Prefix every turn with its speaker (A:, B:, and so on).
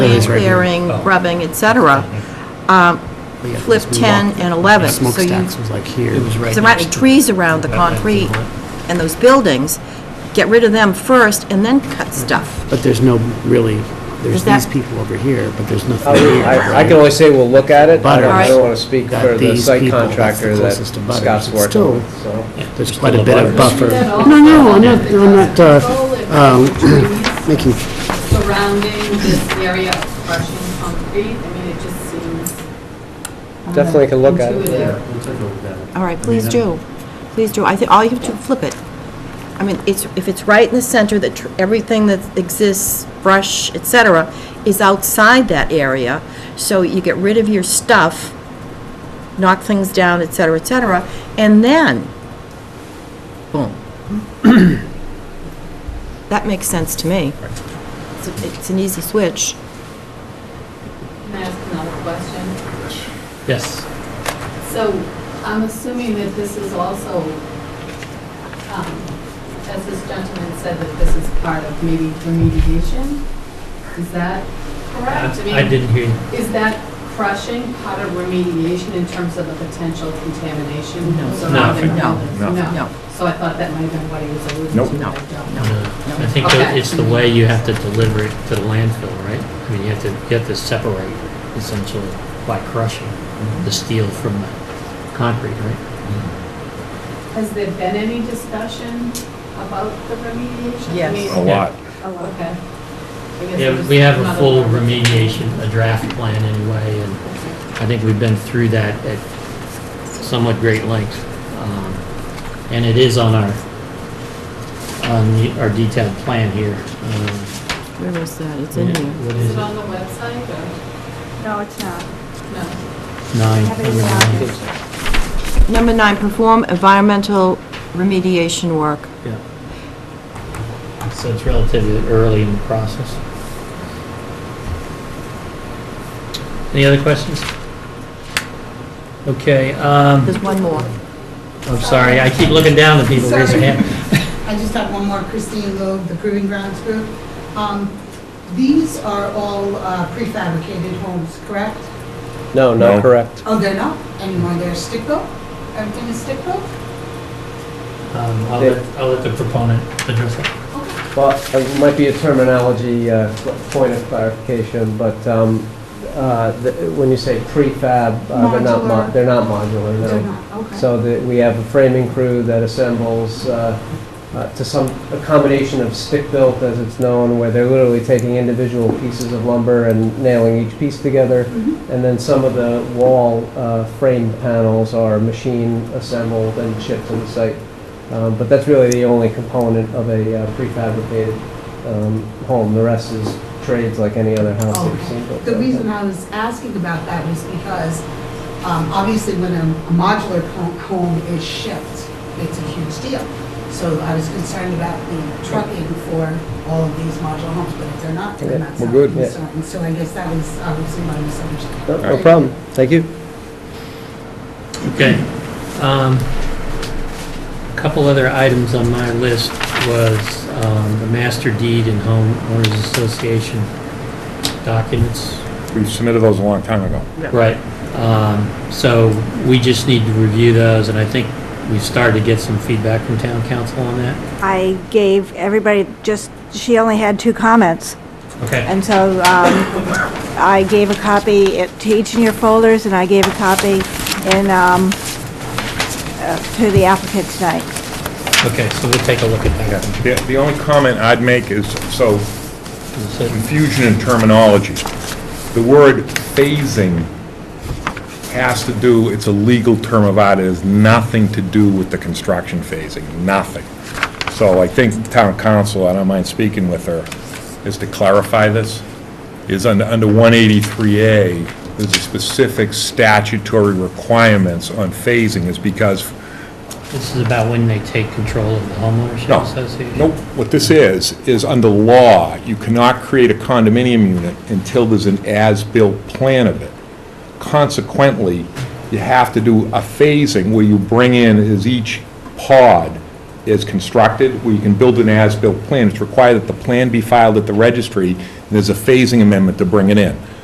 A: It's regular.
B: clearing,
A: Oh.
B: grubbing, et cetera. Um,
A: But yeah,
B: Flip
A: because we
B: 10
A: walked-
B: and 11. So you-
C: Smokestacks was like here.
A: It was right
B: There aren't
A: next to-
B: trees around the
A: That might be
B: concrete
A: what-
B: and those buildings. Get rid of them first and then cut stuff.
C: But there's no really,
B: Is
C: there's
B: that-
C: these people over here, but the's nothing here.
D: Oh, I I can only say we'll look at it. I don't- I
B: Butters.
D: don't want to speak
C: That
D: for the
C: these
D: site
C: people, that's the
D: contractor that
C: closest to Butters.
D: Scott's
C: It's
D: working
C: still-
D: with, so.
C: There's quite a bit of buffer.
E: That all-
C: No, no, I'm not, I'm not uh, um,
E: Trees
C: making,
E: Surrounding this area of crushing concrete, I mean, it just seems
D: Definitely can look at it.
E: intuitive.
B: All right, please do. Please do. I think, all you have to flip it. I mean, it's, if it's right in the center, that tr- everything that exists, brush, et cetera, is outside that area, so you get rid of your stuff, knock things down, et cetera, et cetera, and then, boom. That makes sense to me. It's a- It's an easy switch.
E: Can I ask another question?
A: Yes.
E: So I'm assuming that this is also, um, as this gentleman said, that this is part of maybe remediation? Is that correct?
A: I I
E: mean,
A: didn't hear you.
C: um,
E: Is that crushing part of remediation in terms of the potential contamination
B: No.
E: surrounding
B: No.
E: buildings?
B: No. No.
E: So I thought that might have been what he was alluding to.
F: Nope.
B: No,
E: but I don't.
B: no,
A: No,
B: no.
A: I think
E: Okay.
A: that it's the way you have to deliver it to the landfill, right? I mean, you have to, you have to separate essentially by crushing the steel from the concrete, right?
E: Has there been any discussion about the remediation? I
B: Yes.
E: mean-
F: A lot.
E: Oh, okay. I guess
A: Yeah,
E: there's
A: we have a
E: another
A: full
E: part.
A: remediation, a draft plan anyway, and I think we've been through that at somewhat great length. Um, And it is on our, on the- our detailed plan here. Um,
B: Where is that? It's in here.
A: What
E: Is
A: is
E: it
A: it?
E: on the website or
G: No, it's not.
E: no?
A: Nine.
G: Have it in
A: number nine.
G: the-
B: Number nine, perform environmental remediation work.
A: Yeah. So it's relatively early in the process. Any other questions? Okay, um,
B: There's one more.
A: I'm sorry, I keep looking down at people, raise their hand.
H: I just have one more, Christine Loeb, the Proving Grounds Group. Um, These are all uh, prefabricated homes, correct?
D: No, not
F: No.
D: correct.
H: Oh, they're not anymore, they're stick-built? Everything is stick-built?
A: Um, I'll let, I'll let the proponent address it.
D: Well, it might be a terminology, uh, point of clarification, but um, uh, the- when you say prefab, uh, they're not, mo-
H: Modular.
D: they're not modular, no.
H: They're not, okay.
D: So that we have a framing crew that assembles uh, uh, to some, a combination of stick-built, as it's known, where they're literally taking individual pieces of lumber and nailing each piece together.
H: Mm-hmm.
D: And then some of the wall uh, frame panels are machine assembled and shipped to the site. Um, But that's really the only component of a uh, prefabricated um, home. The rest is trades like any other house that you've seen built.
H: Oh, The reason I was asking about that was because, um, obviously, when a a modular co- home is shipped, it's a huge deal. So I was concerned about the trucking for all of these modular homes, but if they're not,
D: Yeah,
H: then that's
F: we're
H: not
F: good.
D: Yeah.
H: concerned. So I guess that was obviously my misunderstanding.
D: No no problem. Thank you.
A: Okay. Um, Couple other items on my list was um, the master deed and home owners association documents.
F: We submitted those a long time ago.
A: Right. Um, So we just need to review those, and I think we've started to get some feedback from town council on that.
G: I gave everybody, just, she only had two comments,
A: Okay.
G: and so um, I gave a copy it- to each in your folders, and I gave a copy in, um, uh, to the applicant tonight.
A: Okay, so we'll take a look at that.
F: The, the only comment I'd make is, so
A: So-
F: confusion in terminology. The word phasing has to do, it's a legal term of art, it has nothing to do with the construction phasing, nothing. So I think town council, I don't mind speaking with her, is to clarify this, is under, under 183A, there's a specific statutory requirements on phasing, is because
A: This is about when they take control of the homeownership
F: No.
A: association?
F: Nope. What this is, is under law, you cannot create a condominium unit until there's an as-built plan of it. Consequently, you have to do a phasing where you bring in as each pod is constructed, where you can build an as-built plan, it's required that the plan be filed at the registry, and there's a phasing amendment to bring it in.